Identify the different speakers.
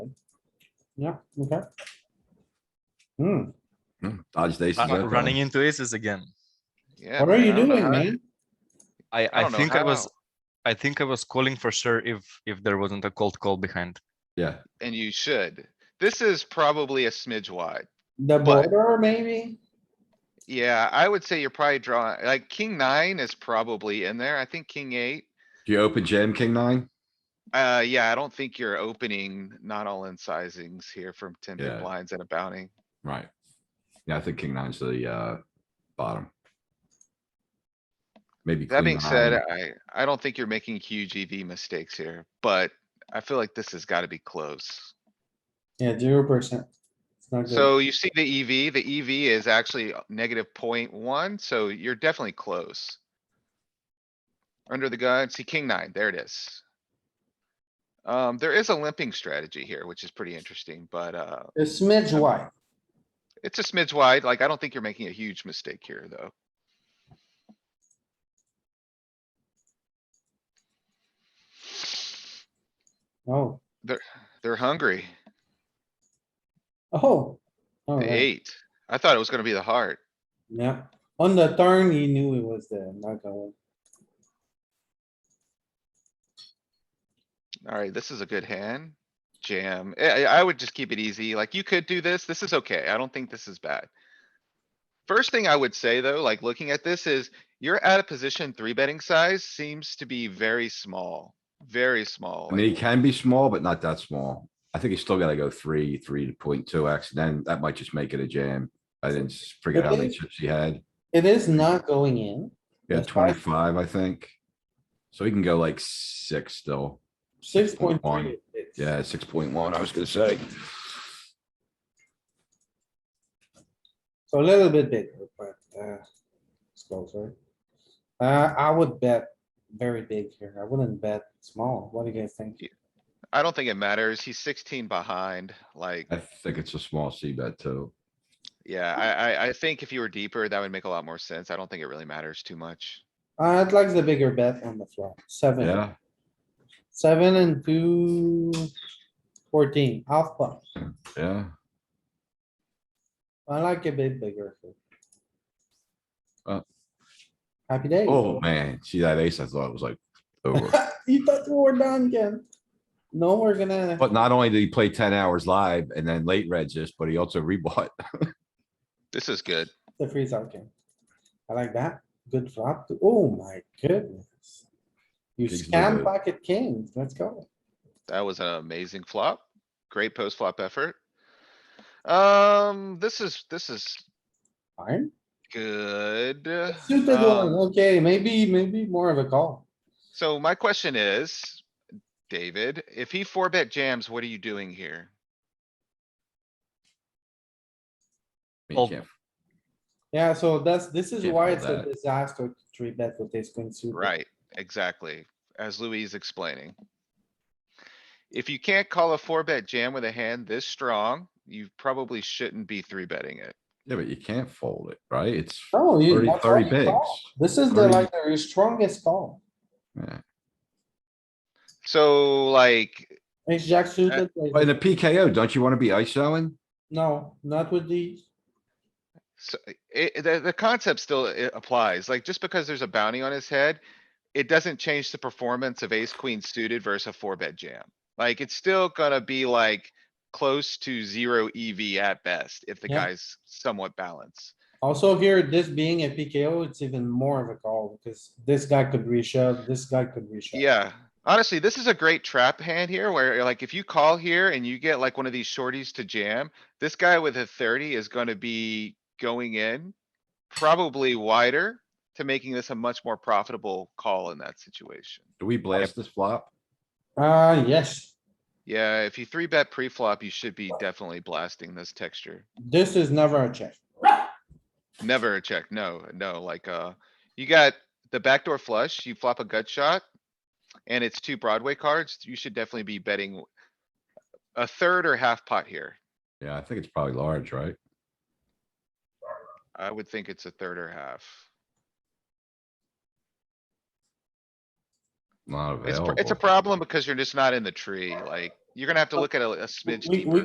Speaker 1: yeah, okay. Hmm,
Speaker 2: Hmm, Dodged aces.
Speaker 3: I'm
Speaker 2: open.
Speaker 3: running into aces again.
Speaker 4: Yeah.
Speaker 1: what are you
Speaker 4: I don't know
Speaker 1: doing,
Speaker 4: how-
Speaker 1: man?
Speaker 3: I,
Speaker 4: I
Speaker 3: I
Speaker 4: don't know
Speaker 3: think I was,
Speaker 4: how.
Speaker 3: I think I was calling for sure if, if there wasn't a cold call behind.
Speaker 2: Yeah,
Speaker 4: And you should. This is probably a smidge wide.
Speaker 1: The
Speaker 4: But-
Speaker 1: border, maybe?
Speaker 4: Yeah, I would say you're probably drawing, like, king nine is probably in there. I think king eight.
Speaker 2: do you open jam king nine?
Speaker 4: Uh, yeah, I don't think you're opening not all in sizings here from ten big
Speaker 2: Yeah.
Speaker 4: blinds and a bounty.
Speaker 2: Right. Yeah, I think king nine's the, uh, bottom. Maybe.
Speaker 4: That
Speaker 2: queen
Speaker 4: being
Speaker 2: nine.
Speaker 4: said, I, I don't think you're making huge EV mistakes here, but I feel like this has gotta be close.
Speaker 1: Yeah, zero percent. It's not good.
Speaker 4: So you see the EV, the EV is actually negative point one, so you're definitely close. Under the gun, see king nine, there it is. Um, there is a limping strategy here, which is pretty interesting, but, uh,
Speaker 1: A smidge wide.
Speaker 4: it's a smidge wide, like, I don't think you're making a huge mistake here, though.
Speaker 1: Oh,
Speaker 4: They're hungry,
Speaker 1: oh.
Speaker 4: the
Speaker 1: Alright,
Speaker 4: eight. I thought it was gonna be the heart.
Speaker 1: yeah. On the turn, he knew it was there, not going.
Speaker 4: Alright, this is a good hand. Jam. I, I I would just keep it easy. Like you could do this. This is okay. I don't think this is bad. First thing I would say though, like looking at this is you're at a position three betting size seems to be very small, very small.
Speaker 2: I mean, he
Speaker 4: like-
Speaker 2: can be small, but not that small. I think he's still gotta go three, three point two X, then that might just make it a jam. I didn't s- forget how many
Speaker 1: Okay.
Speaker 2: chips he had.
Speaker 1: It is not going in.
Speaker 2: Yeah,
Speaker 1: That's fine.
Speaker 2: twenty-five, I think. So he can go like six still.
Speaker 1: Six point three.
Speaker 2: 6.1. Yeah, six point one, I was gonna say.
Speaker 1: So a little bit bigger, but, uh, it's closer. Uh, I would bet very big here. I wouldn't bet small. What do you guys think?
Speaker 4: I don't think it matters. He's sixteen behind, like,
Speaker 2: I think it's a small C bet too.
Speaker 4: yeah, I, I, I think if you were deeper, that would make a lot more sense. I don't think it really matters too much.
Speaker 1: Uh, I'd like the bigger bet on the flop. Seven,
Speaker 2: Yeah,
Speaker 1: seven and two, fourteen, half pot.
Speaker 2: yeah.
Speaker 1: I like a bit bigger. here.
Speaker 2: Uh.
Speaker 1: Happy day.
Speaker 2: Oh, man, see that ace, I thought it was like over.
Speaker 1: You thought we were done, Ken? No, we're gonna,
Speaker 2: But not only did he play ten hours live and then late regist, but he also rebought.
Speaker 4: This is good.
Speaker 1: the freeze out game. I like that. Good flop. Oh my goodness. You
Speaker 2: Big
Speaker 1: scam
Speaker 2: blind.
Speaker 1: pocket kings. Let's go.
Speaker 4: That was an amazing flop. Great post flop effort. Um, this is, this is
Speaker 1: Fine.
Speaker 4: good.
Speaker 1: Suited one.
Speaker 4: Um,
Speaker 1: Okay, maybe, maybe more of a call.
Speaker 4: So my question is, David, if he four bet jams, what are you doing here?
Speaker 2: I mean, you
Speaker 3: Well,
Speaker 2: can't-
Speaker 1: Yeah, so that's, this is
Speaker 2: Can't
Speaker 1: why
Speaker 2: call
Speaker 1: it's a
Speaker 2: that.
Speaker 1: disaster to three bet with this queen suited.
Speaker 4: Right, exactly, as Louis is explaining. If you can't call a four bet jam with a hand this strong, you probably shouldn't be three betting it.
Speaker 2: Yeah, but you can't fold it, right? It's,
Speaker 1: Oh, you,
Speaker 2: 30
Speaker 1: that's why
Speaker 2: 30
Speaker 1: you call.
Speaker 2: bigs.
Speaker 1: This is the
Speaker 2: 30.
Speaker 1: like the strongest call.
Speaker 2: yeah.
Speaker 4: So like,
Speaker 1: Ace jack suited. like-
Speaker 2: But in a PKO, don't you want to be ISOing?
Speaker 1: No, not with these.
Speaker 4: So it, the, the concept still i- applies, like just because there's a bounty on his head, it doesn't change the performance of ace queen suited versus a four bet jam. Like it's still gonna be like close to zero EV at best if the
Speaker 1: Yeah.
Speaker 4: guy's somewhat balanced.
Speaker 1: Also here, this being a PKO, it's even more of a call because this guy could reshove, this guy could reshove.
Speaker 4: Yeah, honestly, this is a great trap hand here where like if you call here and you get like one of these shorties to jam, this guy with a thirty is gonna be going in probably wider to making this a much more profitable call in that situation.
Speaker 2: Do we blast this flop?
Speaker 1: Uh, yes,
Speaker 4: Yeah, if you three bet pre-flop, you should be definitely blasting this texture.
Speaker 1: this is never a check.
Speaker 4: Never a check, no, no, like, uh, you got the backdoor flush, you flop a gut shot. And it's two Broadway cards, you should definitely be betting a third or half pot here.
Speaker 2: Yeah, I think it's probably large, right?
Speaker 4: I would think it's a third or half.
Speaker 2: Not
Speaker 4: It's, pr-
Speaker 2: available.
Speaker 4: it's a problem because you're just not in the tree, like, you're gonna have to look at a a smidge
Speaker 1: we-
Speaker 4: deeper.
Speaker 1: we